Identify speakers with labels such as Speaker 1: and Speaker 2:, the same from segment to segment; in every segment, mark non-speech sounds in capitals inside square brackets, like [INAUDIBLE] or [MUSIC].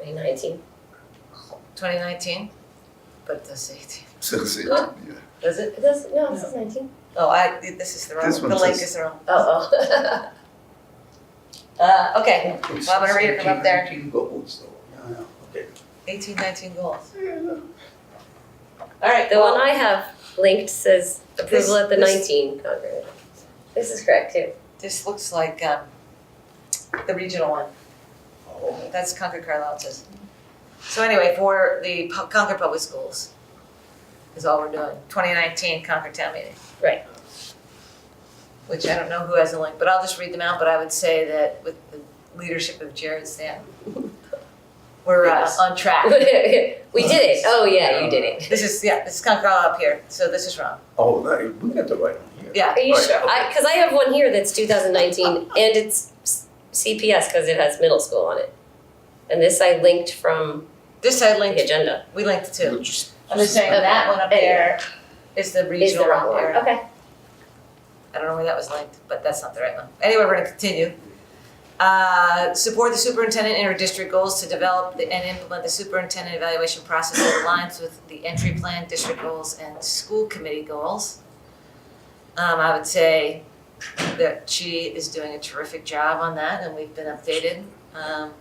Speaker 1: 2019.
Speaker 2: 2019? But this 18.
Speaker 3: So it's it,
Speaker 1: Huh?
Speaker 3: yeah.
Speaker 2: Does it?
Speaker 1: It does, no, it says 19.
Speaker 2: Oh, I, this is the wrong,
Speaker 3: This
Speaker 2: the
Speaker 3: one
Speaker 2: link
Speaker 3: says-
Speaker 2: is the wrong.
Speaker 1: Oh, oh. [LAUGHS]
Speaker 2: Uh, okay,
Speaker 3: Well,
Speaker 2: I'm gonna read it from up there.
Speaker 3: goals though, yeah, okay.
Speaker 2: 18, 19 goals.
Speaker 3: Yeah,
Speaker 2: All right,
Speaker 1: The
Speaker 2: well,
Speaker 1: one I have linked says approval at the
Speaker 2: This- this-
Speaker 1: 19 Concord. This is correct too. [LAUGHS]
Speaker 2: This looks like, um, the regional one.
Speaker 3: oh,
Speaker 2: That's Concord Carlisle it says. So anyway, for the Pu- Concord Public Schools is all we're doing, twenty nineteen Concord Town Meeting.
Speaker 1: Right.
Speaker 2: Which I don't know who has the link, but I'll just read them out, but I would say that with the leadership of Jared Stan, we're uh,
Speaker 1: Yes. [LAUGHS]
Speaker 2: on track.
Speaker 1: we did it. Oh, yeah, you did it.
Speaker 2: This is, yeah, this is Concord Carlisle up here, so this is wrong.
Speaker 3: Oh, that, we got the right one here.
Speaker 2: Yeah,
Speaker 1: Are you
Speaker 3: Right,
Speaker 1: sure?
Speaker 3: okay.
Speaker 1: Because I, have one here that's 2019 and it's s- CPS because it has middle school on it. And this I linked from
Speaker 2: this I
Speaker 1: the
Speaker 2: linked,
Speaker 1: agenda.
Speaker 2: we linked
Speaker 3: We'll
Speaker 2: two.
Speaker 3: just-
Speaker 2: I'm just saying
Speaker 1: Okay.
Speaker 2: that one up there is the
Speaker 1: Is the
Speaker 2: regional
Speaker 1: wrong
Speaker 2: one
Speaker 1: one.
Speaker 2: there.
Speaker 1: Okay.
Speaker 2: I don't know where that was linked, but that's not the right one. Anyway, we're gonna continue. Uh, support the superintendent in her district goals to develop the- and implement the superintendent evaluation process that aligns with the entry plan, district goals, and school committee goals. Um, I would say that she is doing a terrific job on that, and we've been updated, um,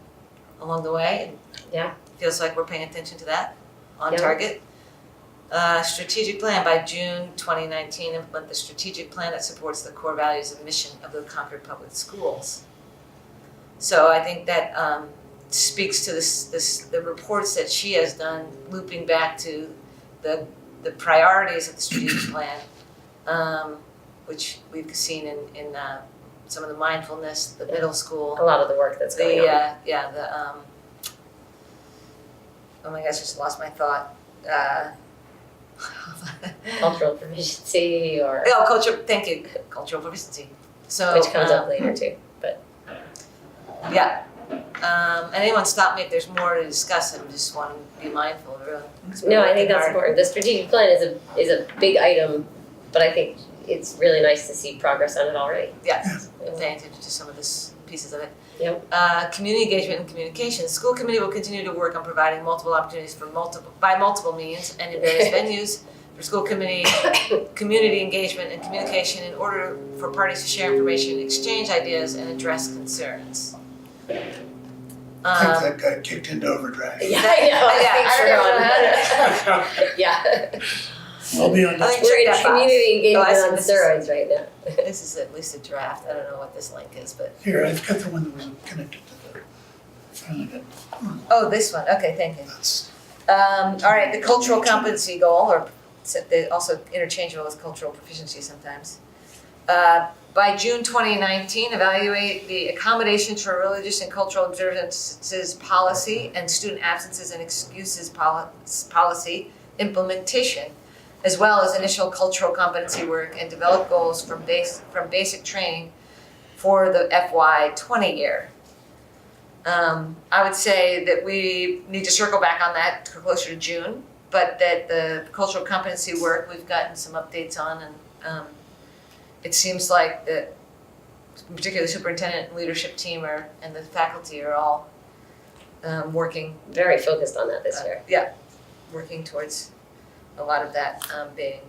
Speaker 2: along the way.
Speaker 1: Yeah.
Speaker 2: Feels like we're paying attention to that, on
Speaker 1: Yeah.
Speaker 2: target. Uh, strategic plan by June twenty nineteen, implement the strategic plan that supports the core values and mission of the Concord Public Schools. So I think that um speaks to this this the reports that she has done looping back to the the priorities of the strategic [CLEARS THROAT] plan. Um, which we've seen in in uh some of the mindfulness, the middle school,
Speaker 1: A lot of the work that's going
Speaker 2: the
Speaker 1: on.
Speaker 2: uh, yeah, the um. Oh my gosh, just lost my thought. Uh, [LAUGHS]
Speaker 1: Cultural proficiency or
Speaker 2: oh, culture. Thank you, cultural proficiency. So
Speaker 1: which comes
Speaker 2: um,
Speaker 1: up later too. But
Speaker 2: Yeah. Um, and anyone stop me if there's more to discuss. I just want to be mindful. Really. 'cause we're
Speaker 1: no, I
Speaker 2: working
Speaker 1: think that's
Speaker 2: hard.
Speaker 1: important. The strategic plan is a is a big item, but I think it's really nice to see progress on it
Speaker 2: [COUGHS]
Speaker 1: already.
Speaker 2: Yes, paying attention to some of this pieces of it.
Speaker 1: Yep.
Speaker 2: Uh, community engagement and communication. School committee will continue to work on providing multiple opportunities for multiple, by multiple means and
Speaker 1: [LAUGHS]
Speaker 2: in various venues for school committee, community engagement and communication in order for parties to share information, exchange ideas and address concerns.
Speaker 4: I
Speaker 2: Um, [LAUGHS]
Speaker 4: think that guy kicked into overdrive.
Speaker 1: Yeah, I know. I
Speaker 2: Yeah,
Speaker 1: think
Speaker 2: I don't know
Speaker 1: so. [LAUGHS] yeah,
Speaker 4: I'll be on
Speaker 2: I
Speaker 4: this.
Speaker 2: think check
Speaker 1: we're in
Speaker 2: that box.
Speaker 1: community
Speaker 2: Oh, I
Speaker 1: engagement
Speaker 2: see
Speaker 1: on
Speaker 2: this.
Speaker 1: steroids right now.
Speaker 2: [LAUGHS] This is at least a draft. I don't know what this link is, but,
Speaker 4: Here, I've got the one that was connected to the, finally got,
Speaker 2: oh, this one. Okay, thank you.
Speaker 4: that's,
Speaker 2: Um, all right, the cultural competency goal, or s- they're also interchangeable with cultural proficiency sometimes. Uh, by June twenty nineteen, evaluate the accommodations for religious and cultural observances policy and student absences and excuses poli- policy implementation, as well as initial cultural competency work and develop goals from base, from basic training for the FY twenty year. Um, I would say that we need to circle back on that closer to June, but that the cultural competency work, we've gotten some updates on and, um, it seems like that particularly the superintendent and leadership team are, and the faculty are all, um, working,
Speaker 1: Very focused on that this
Speaker 2: uh,
Speaker 1: year.
Speaker 2: yeah, working towards a lot of that, um, being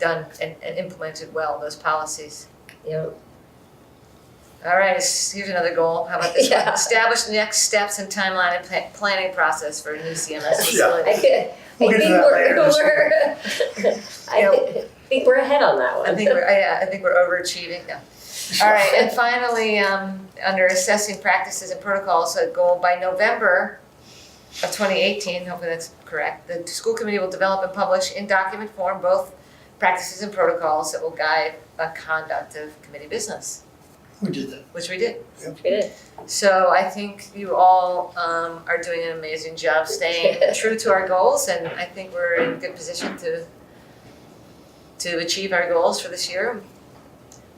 Speaker 2: done and, and implemented well, those policies.
Speaker 1: Yeah,
Speaker 2: All right, s- here's another goal. How about this one?
Speaker 1: Yeah.
Speaker 2: Establish next steps and timeline and pla- planning process for a new CMS
Speaker 1: I,
Speaker 2: facility.
Speaker 1: I
Speaker 4: We'll get to
Speaker 1: think
Speaker 4: that
Speaker 1: we're,
Speaker 4: later this
Speaker 1: we're
Speaker 2: [LAUGHS]
Speaker 1: I thi- think we're ahead on that one.
Speaker 2: I think we're, yeah, I think we're overachieving. No. All right, and finally, um, under assessing practices and protocols, a goal by November of twenty eighteen, hopefully that's correct, the school committee will develop and publish in document form both practices and protocols that will guide the conduct of committee business,
Speaker 4: we did that.
Speaker 2: which we did.
Speaker 1: We did.
Speaker 2: So I think you all um, are doing an amazing
Speaker 1: [LAUGHS]
Speaker 2: job staying true to our goals, and I think we're in a good position to to achieve our goals for this year.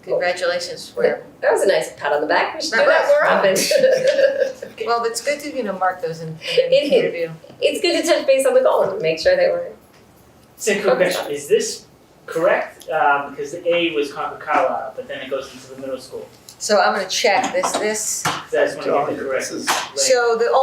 Speaker 2: Congratulations! We're,
Speaker 1: That was a nice pat on the back. We should do
Speaker 2: That
Speaker 1: that
Speaker 2: was.
Speaker 1: more often.
Speaker 3: [LAUGHS]
Speaker 2: [LAUGHS] well, it's good to you know mark those in, in
Speaker 1: It is.
Speaker 2: interview.
Speaker 1: it's good to touch base on the goal and make sure that we're
Speaker 5: So quick question, is this correct? Um, because the A was Concord Carlisle, but then it goes into the middle school.
Speaker 2: So I'm gonna check this. This
Speaker 5: So I just want to
Speaker 3: John,
Speaker 5: get the correct.
Speaker 3: this is.
Speaker 5: link.
Speaker 2: so the